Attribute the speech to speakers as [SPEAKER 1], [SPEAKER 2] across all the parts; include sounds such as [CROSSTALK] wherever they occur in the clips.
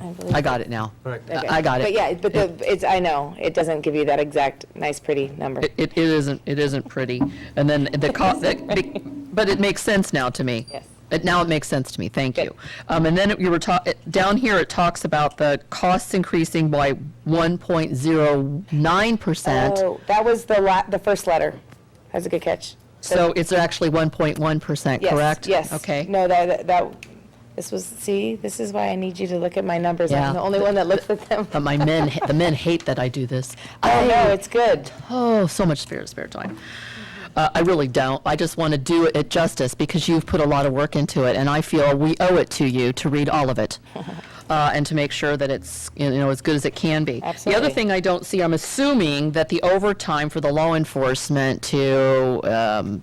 [SPEAKER 1] I believe.
[SPEAKER 2] I got it now.
[SPEAKER 3] Correct.
[SPEAKER 2] I-
[SPEAKER 1] Okay.
[SPEAKER 2] I got it.
[SPEAKER 1] But yeah, but the, it's, I know, it doesn't give you that exact, nice, pretty number.
[SPEAKER 2] It, it it isn't, it isn't pretty. And then
[SPEAKER 1] [LAUGHS]
[SPEAKER 2] the cost, but it makes sense now to me.
[SPEAKER 1] Yes.
[SPEAKER 2] It, now it makes sense to me, thank
[SPEAKER 1] Good.
[SPEAKER 2] you. Um, and then you were ta, it- down here, it talks about the costs increasing by one point zero nine percent.
[SPEAKER 1] Oh, that was the la, the first letter. That's a good catch.
[SPEAKER 2] So it's actually one point one percent,
[SPEAKER 1] Yes,
[SPEAKER 2] correct?
[SPEAKER 1] Yes.
[SPEAKER 2] Okay.
[SPEAKER 1] No, that, that- that, this was, see, this is why I need you to look at my numbers.
[SPEAKER 2] Yeah.
[SPEAKER 1] I'm the only one that looks at them.
[SPEAKER 2] But Uh, my men, the men hate that I do this.
[SPEAKER 1] I know, it's good.
[SPEAKER 2] Oh, so much spare, spare time. Uh, I really don't. I just want to do it justice because you've put a lot of work into it, and I feel we owe it to you to read all of it uh, and to make sure that it's you know as good as it can be. The
[SPEAKER 1] Absolutely.
[SPEAKER 2] other thing I don't see, I'm assuming that the overtime for the law enforcement to um,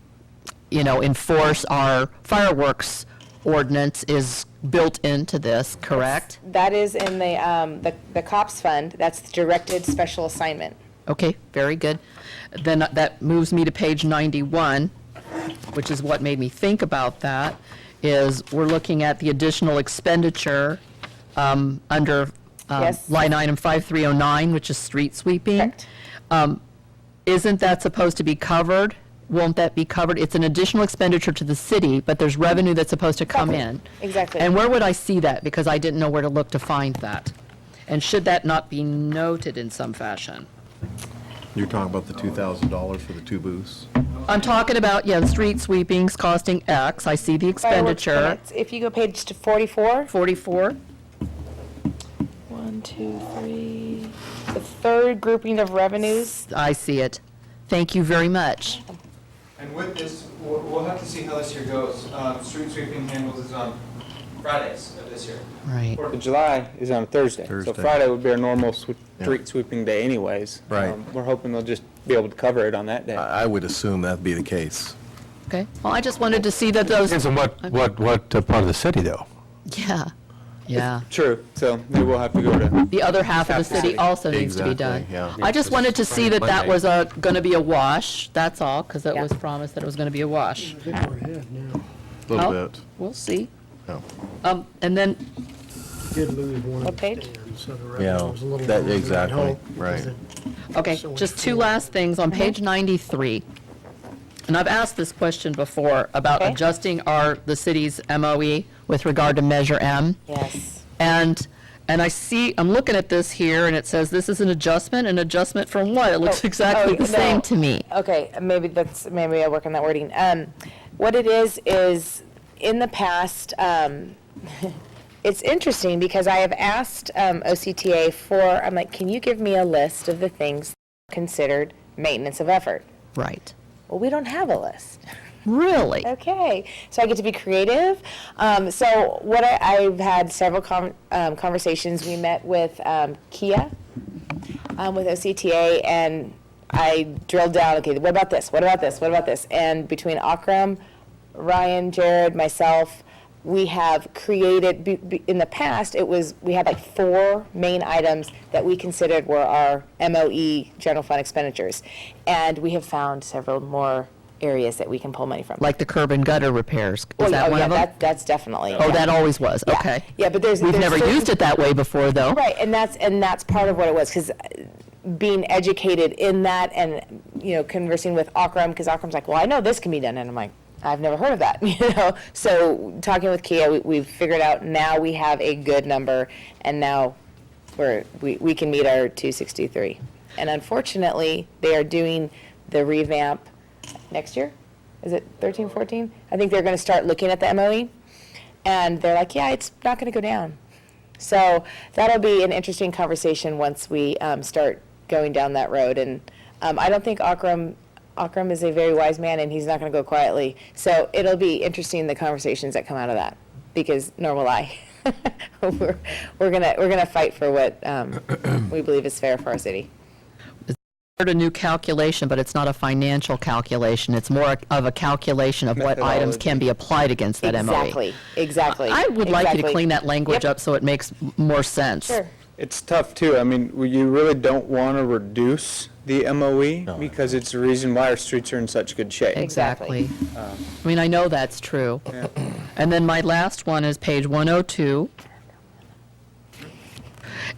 [SPEAKER 2] you know enforce our fireworks ordinance is built into this, correct?
[SPEAKER 1] That is in the, um, the, the cops fund. That's the directed special assignment.
[SPEAKER 2] Okay, very good. Then uh, that moves me to page 91, which is what made me think about that, is we're looking at the additional expenditure um, under um,
[SPEAKER 1] Yes.
[SPEAKER 2] line item 5309, which is street sweeping.
[SPEAKER 1] Correct.
[SPEAKER 2] Isn't that supposed to be covered? Won't that be covered? It's an additional expenditure to the city, but there's revenue that's supposed to come in.
[SPEAKER 1] Exactly.
[SPEAKER 2] And where would I see that? Because I didn't know where to look to find that. And should that not be noted in some fashion?
[SPEAKER 3] You're talking about the $2,000 for the two booths?
[SPEAKER 2] I'm talking about, yeah, the street sweepings costing X, I see the
[SPEAKER 1] Fireworks
[SPEAKER 2] expenditure.
[SPEAKER 1] permits. If you go page to forty-four,
[SPEAKER 2] Forty-four,
[SPEAKER 1] one, two, three, the third grouping of revenues.
[SPEAKER 2] I see it. Thank you very much.
[SPEAKER 4] And with this, we'll, we'll have to see how this year goes. Um, street sweeping handles is on Fridays of this year.
[SPEAKER 2] Right.
[SPEAKER 4] Or
[SPEAKER 5] The July is on Thursday, so
[SPEAKER 3] Thursday.
[SPEAKER 5] Friday would be our normal swe-
[SPEAKER 3] Yeah.
[SPEAKER 5] street sweeping day anyways.
[SPEAKER 3] Right. Uh,
[SPEAKER 5] Um, We're hoping they'll just be able to cover it on that day.
[SPEAKER 3] I I would assume that'd be the case.
[SPEAKER 2] Okay, well, I just wanted to see that
[SPEAKER 6] Depends
[SPEAKER 2] those,
[SPEAKER 6] on what, what, what uh, part of the city, though.
[SPEAKER 2] yeah, yeah.
[SPEAKER 5] True, so they will have to go to,
[SPEAKER 2] The other half of the city also needs to be done.
[SPEAKER 3] Exactly, yeah.
[SPEAKER 2] I just wanted to see that that
[SPEAKER 6] Monday.
[SPEAKER 2] was a, gonna be a wash, that's all, because that
[SPEAKER 1] Yeah.
[SPEAKER 2] was promised that it was gonna be a wash.
[SPEAKER 3] A little
[SPEAKER 2] Well,
[SPEAKER 3] bit.
[SPEAKER 2] We'll see.
[SPEAKER 3] Yeah.
[SPEAKER 2] Um, and then,
[SPEAKER 7] did lose one
[SPEAKER 1] What
[SPEAKER 7] of the
[SPEAKER 1] page?
[SPEAKER 7] stands, so the
[SPEAKER 3] Yeah,
[SPEAKER 7] revenue was a little
[SPEAKER 3] that-
[SPEAKER 7] lower than I'd
[SPEAKER 3] exactly,
[SPEAKER 7] hoped,
[SPEAKER 3] right.
[SPEAKER 7] because it-
[SPEAKER 2] Okay,
[SPEAKER 7] So
[SPEAKER 2] just
[SPEAKER 7] it's
[SPEAKER 2] two
[SPEAKER 7] four.
[SPEAKER 2] last things. On page
[SPEAKER 1] Mm-hmm.
[SPEAKER 2] 93, and I've asked this question before about
[SPEAKER 1] Okay.
[SPEAKER 2] adjusting our, the city's MOE with regard to Measure M.
[SPEAKER 1] Yes.
[SPEAKER 2] And, and I see, I'm looking at this here, and it says this is an adjustment, an adjustment from what? It looks
[SPEAKER 1] Oh,
[SPEAKER 2] exactly
[SPEAKER 1] oh,
[SPEAKER 2] the same
[SPEAKER 1] no.
[SPEAKER 2] to me.
[SPEAKER 1] Okay, maybe that's, maybe I work on that wording. Um, what it is, is in the past, um, [LAUGHS] it's interesting because I have asked, um, OCTA for, I'm like, can you give me a list of the things considered maintenance of effort?
[SPEAKER 2] Right.
[SPEAKER 1] Well, we don't have a list.
[SPEAKER 2] Really?
[SPEAKER 1] Okay, so I get to be creative. Um, so what I, I've had several con um, conversations. We met with um, Kia, um, with OCTA, and I drilled down. Okay, what about this? What about this? What about this? And between Akram, Ryan, Jared, myself, we have created. b- b- In the past, it was we had like four main items that we considered were our MOE general fund expenditures, and we have found several more areas that we can pull money from.
[SPEAKER 2] Like the curb and gutter repairs?
[SPEAKER 1] Oh,
[SPEAKER 2] Is
[SPEAKER 1] yeah,
[SPEAKER 2] that
[SPEAKER 1] oh,
[SPEAKER 2] one
[SPEAKER 1] yeah,
[SPEAKER 2] of them?
[SPEAKER 1] that- That's definitely.
[SPEAKER 2] Oh,
[SPEAKER 1] yeah.
[SPEAKER 2] that always was,
[SPEAKER 1] Yeah.
[SPEAKER 2] okay.
[SPEAKER 1] Yeah, but there's.
[SPEAKER 2] We've
[SPEAKER 1] there's
[SPEAKER 2] never
[SPEAKER 1] certain-
[SPEAKER 2] used it that way before, though.
[SPEAKER 1] Right, and that's, and that's part of what it was, because being educated in that and, you know, conversing with Akram, because Akram's like, well, I know this can be done, and I'm like, I've never heard of that, [LAUGHS] you know? So talking with Kia, we, we've figured out now we have a good number, and now we're, we, we can meet our two sixty-three. And unfortunately, they are doing the revamp next year? Is it thirteen, fourteen? I think they're gonna start looking at the MOE, and they're like, yeah, it's not gonna go down. So that'll be an interesting conversation once we um, start going down that road. And um, I don't think Akram, Akram is a very wise man, and he's not going to go quietly. So it'll be interesting the conversations that come out of that, because nor will I. [LAUGHS] we're, we're gonna we're gonna fight for what um, we believe is fair for our city.
[SPEAKER 2] heard a new calculation, but it's not a financial calculation. It's more of a calculation of what items can be applied against that MOE.
[SPEAKER 1] exactly, exactly.
[SPEAKER 2] I would like you to
[SPEAKER 1] exactly.
[SPEAKER 2] clean that language
[SPEAKER 1] Yep.
[SPEAKER 2] up so it makes m- more sense.
[SPEAKER 1] Sure.
[SPEAKER 5] it's tough too, I mean, we- you really don't want to reduce the MOE because it's the reason why our streets are in such good shape.
[SPEAKER 1] Exactly.
[SPEAKER 2] Exactly. I mean, I know that's true. And then my last one oh is page 102,